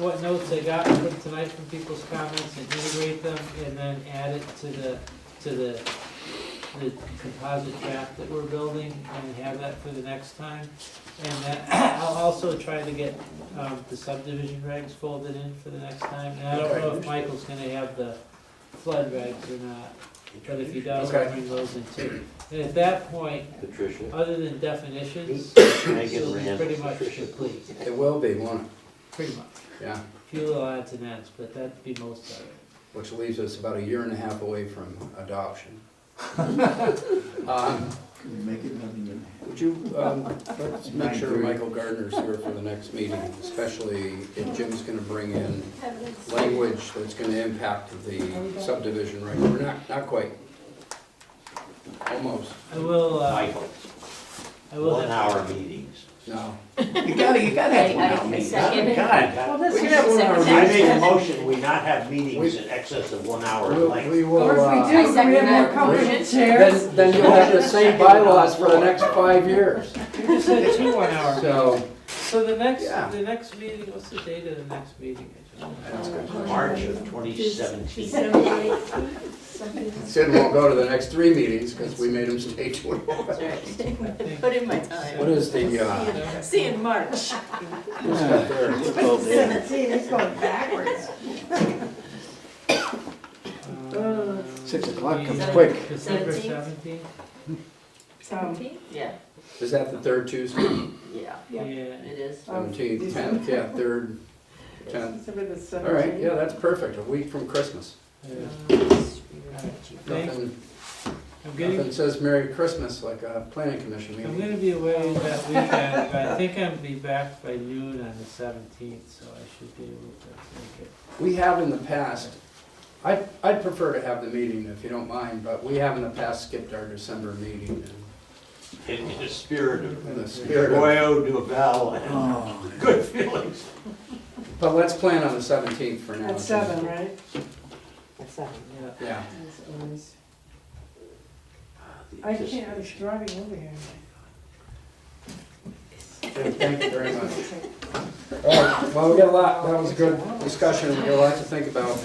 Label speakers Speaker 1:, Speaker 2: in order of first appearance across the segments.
Speaker 1: what notes I got from tonight from people's comments and integrate them and then add it to the, to the, the composite draft that we're building and have that for the next time. And then I'll also try to get, um, the subdivision regs folded in for the next time. And I don't know if Michael's gonna have the flood regs or not, but if he does, I'll bring those in too. And at that point,
Speaker 2: Patricia,
Speaker 1: other than definitions,
Speaker 2: Megan
Speaker 1: you'll be
Speaker 2: Rand.
Speaker 1: pretty much complete,
Speaker 3: It will be, won't it?
Speaker 1: pretty much.
Speaker 3: Yeah,
Speaker 1: Few little odds and ends, but that'd be most of it.
Speaker 3: which leaves us about a year and a half away from adoption. Um,
Speaker 4: Make it nothing.
Speaker 3: Would you, um, let's make sure Michael Gardner's here for the next meeting, especially if Jim's gonna bring in language that's gonna impact the subdivision, right? We're not, not quite. Almost,
Speaker 1: I will, uh,
Speaker 2: Michael,
Speaker 1: I will
Speaker 2: one
Speaker 1: have,
Speaker 2: hour meetings.
Speaker 3: no.
Speaker 4: You gotta, you gotta have one
Speaker 5: I- I
Speaker 4: out, man.
Speaker 5: second.
Speaker 2: God,
Speaker 3: We can have one hour
Speaker 2: I
Speaker 3: meeting.
Speaker 2: make a motion, we not have meetings in excess of one hour in
Speaker 3: We'll-
Speaker 2: length.
Speaker 3: We will,
Speaker 6: Or if we
Speaker 3: uh,
Speaker 6: do, we have more
Speaker 5: second
Speaker 6: comfortable
Speaker 3: that.
Speaker 6: chairs.
Speaker 3: then, then you'll have the same bylaws for the next five years.
Speaker 1: you just said two one hour.
Speaker 3: So,
Speaker 1: So the next,
Speaker 3: Yeah.
Speaker 1: the next meeting, what's the date of the next meeting?
Speaker 3: that's good.
Speaker 2: March of twenty seventeen.
Speaker 3: Sid won't go to the next three meetings because we made him stay two.
Speaker 5: Put in my time.
Speaker 3: What is the, uh,
Speaker 1: Yeah.
Speaker 5: See you in March.
Speaker 3: what's up there?
Speaker 6: Seventeen, it's going backwards.
Speaker 1: Um,
Speaker 4: Six o'clock comes
Speaker 1: the-
Speaker 4: quick.
Speaker 1: December
Speaker 5: Seventeenth?
Speaker 1: seventeenth?
Speaker 3: Um,
Speaker 6: So,
Speaker 5: Yeah,
Speaker 3: Is that the third Tuesday?
Speaker 5: yeah,
Speaker 1: Yeah.
Speaker 6: Yeah.
Speaker 5: it is.
Speaker 6: um,
Speaker 3: Seventeenth, tenth, yeah, third, tenth.
Speaker 6: December the
Speaker 3: All right,
Speaker 6: seventeenth.
Speaker 3: yeah, that's perfect, a week from Christmas.
Speaker 1: Uh, Thanks. I'm
Speaker 3: Nothing, nothing
Speaker 1: getting,
Speaker 3: says Merry Christmas like a planning commission
Speaker 1: I'm
Speaker 3: meeting.
Speaker 1: gonna be away that weekend, but I think I'll be back by noon on the seventeenth, so I should be able to make it.
Speaker 3: We have in the past, I'd, I'd prefer to have the meeting if you don't mind, but we have in the past skipped our December meeting.
Speaker 2: In in the spirit of
Speaker 3: In the spirit of,
Speaker 2: Royo Duval
Speaker 1: Uh-huh.
Speaker 2: and
Speaker 4: Oh,
Speaker 2: good feelings.
Speaker 3: but let's plan on the seventeenth for now.
Speaker 6: At seven, right?
Speaker 1: Yeah.
Speaker 3: Yeah,
Speaker 6: I can't, I was driving over here.
Speaker 3: Jim, thank you very much. All right, well, we got a lot, that was a good discussion, we got a lot to think about.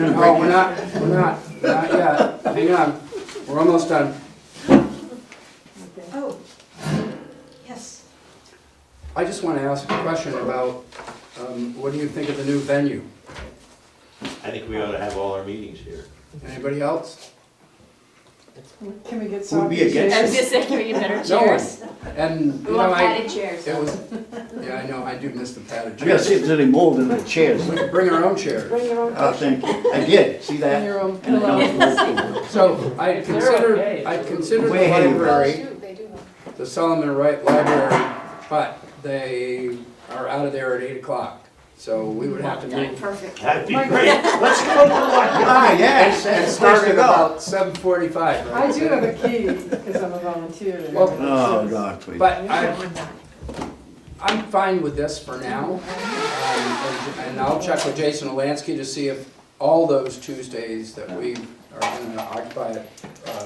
Speaker 3: No, we're not, we're not, not yet, hang on, we're almost done.
Speaker 5: Oh, yes.
Speaker 3: I just want to ask a question about, um, what do you think of the new venue?
Speaker 2: I think we ought to have all our meetings here.
Speaker 3: Anybody else?
Speaker 6: Can we get
Speaker 4: Would
Speaker 6: some?
Speaker 4: be against
Speaker 5: I
Speaker 6: chairs?
Speaker 5: was gonna say, can we get better
Speaker 3: No one.
Speaker 5: chairs?
Speaker 3: And, you
Speaker 5: We
Speaker 3: know,
Speaker 5: want
Speaker 3: I,
Speaker 5: padded chairs.
Speaker 3: it was, yeah, I know, I do miss the padded
Speaker 4: I gotta
Speaker 3: chairs.
Speaker 4: see if
Speaker 3: We
Speaker 4: there's any mold in the chairs.
Speaker 3: could bring our own chairs.
Speaker 6: Bring your own.
Speaker 4: Oh, thank you. I did, see
Speaker 3: Bring
Speaker 4: that?
Speaker 3: your own.
Speaker 4: And I-
Speaker 3: So I
Speaker 1: If they're okay,
Speaker 3: consider,
Speaker 1: it's
Speaker 3: I
Speaker 1: okay.
Speaker 3: consider the
Speaker 4: Way ahead of us.
Speaker 3: library, the Solomon Wright Library, but they are out of there at eight o'clock. So we would have to move.
Speaker 5: Perfect.
Speaker 2: That'd be great. Let's go to one.
Speaker 4: Ah, yes,
Speaker 3: And
Speaker 4: that's the place
Speaker 3: start
Speaker 4: to
Speaker 3: at
Speaker 4: go.
Speaker 3: about seven forty-five,
Speaker 6: I
Speaker 3: right?
Speaker 6: do have a key, because I'm a volunteer.
Speaker 3: Well-
Speaker 4: Oh, God, please.
Speaker 3: But I, I'm fine with this for now. Um, And and I'll check with Jason Alansky to see if all those Tuesdays that we are going to occupy it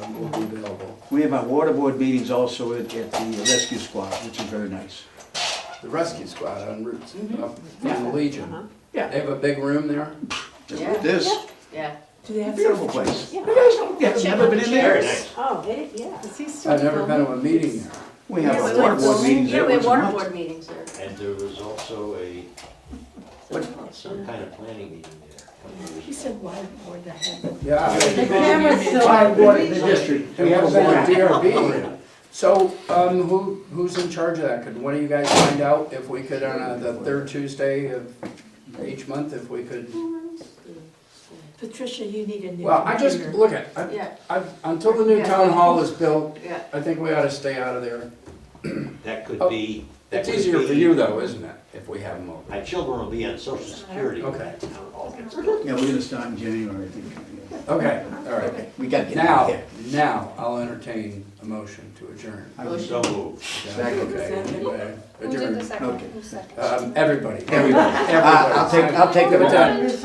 Speaker 3: um, will be available.
Speaker 4: We have our water board meetings also at at the rescue squad, which is very nice.
Speaker 3: The rescue squad on Route, up in the Legion. They
Speaker 4: Yeah.
Speaker 3: have a big room there.
Speaker 4: Just
Speaker 5: Yeah.
Speaker 4: like this,
Speaker 5: Yeah.
Speaker 6: Do they have
Speaker 4: beautiful place. You guys don't, have never been in
Speaker 2: Very
Speaker 4: there.
Speaker 2: nice.
Speaker 6: Oh, they, yeah. Is he still?
Speaker 3: I've never
Speaker 6: filming?
Speaker 3: been to a meeting there.
Speaker 4: We have
Speaker 5: Yeah,
Speaker 4: our
Speaker 5: we
Speaker 4: water
Speaker 5: went
Speaker 4: board
Speaker 5: bowling.
Speaker 4: meetings
Speaker 5: Yeah,
Speaker 4: there
Speaker 5: we
Speaker 4: once
Speaker 5: have
Speaker 4: a
Speaker 5: water
Speaker 4: month.
Speaker 5: board meetings there.
Speaker 2: And there was also a,
Speaker 4: What-
Speaker 2: some kind of planning meeting there. a couple of years
Speaker 5: He said, why board the heck?
Speaker 3: Yeah.
Speaker 6: The
Speaker 3: I-
Speaker 6: camera's still.
Speaker 4: Water board in the
Speaker 6: Well,
Speaker 4: district.
Speaker 3: We
Speaker 4: We have a
Speaker 3: haven't
Speaker 4: board.
Speaker 3: been to DRB. So um, who, who's in charge of that? Could one of you guys find out if we could, on uh, the third Tuesday of each month, if we could?
Speaker 5: Patricia, you need a new.
Speaker 3: Well, I just,
Speaker 5: computer.
Speaker 3: look at, I-
Speaker 5: Yeah,
Speaker 3: I- until the new town hall is built,
Speaker 5: yeah.
Speaker 3: I think we ought to stay out of there.
Speaker 2: ago. That
Speaker 3: Oh,
Speaker 2: could be. that
Speaker 3: It's
Speaker 2: could
Speaker 3: easier
Speaker 2: be-
Speaker 3: for you though, isn't it, if we have them over?
Speaker 2: My children will be on social security when
Speaker 3: Okay.
Speaker 2: that town hall gets built.
Speaker 4: Yeah, we're gonna start in January, I think.
Speaker 3: Okay, all right.
Speaker 4: We gotta get out
Speaker 3: Now,
Speaker 4: of here.
Speaker 3: now, I'll entertain a motion to adjourn.
Speaker 4: I was-
Speaker 2: So moved.
Speaker 3: Okay,
Speaker 4: Second.
Speaker 7: Who did the
Speaker 3: Adjourn.
Speaker 7: second?
Speaker 4: Okay.
Speaker 7: Who seconded?
Speaker 3: Um, Everybody.
Speaker 4: Everybody.
Speaker 3: Everybody.
Speaker 4: I'll take, I'll take the
Speaker 3: Give it
Speaker 4: vote.
Speaker 3: time.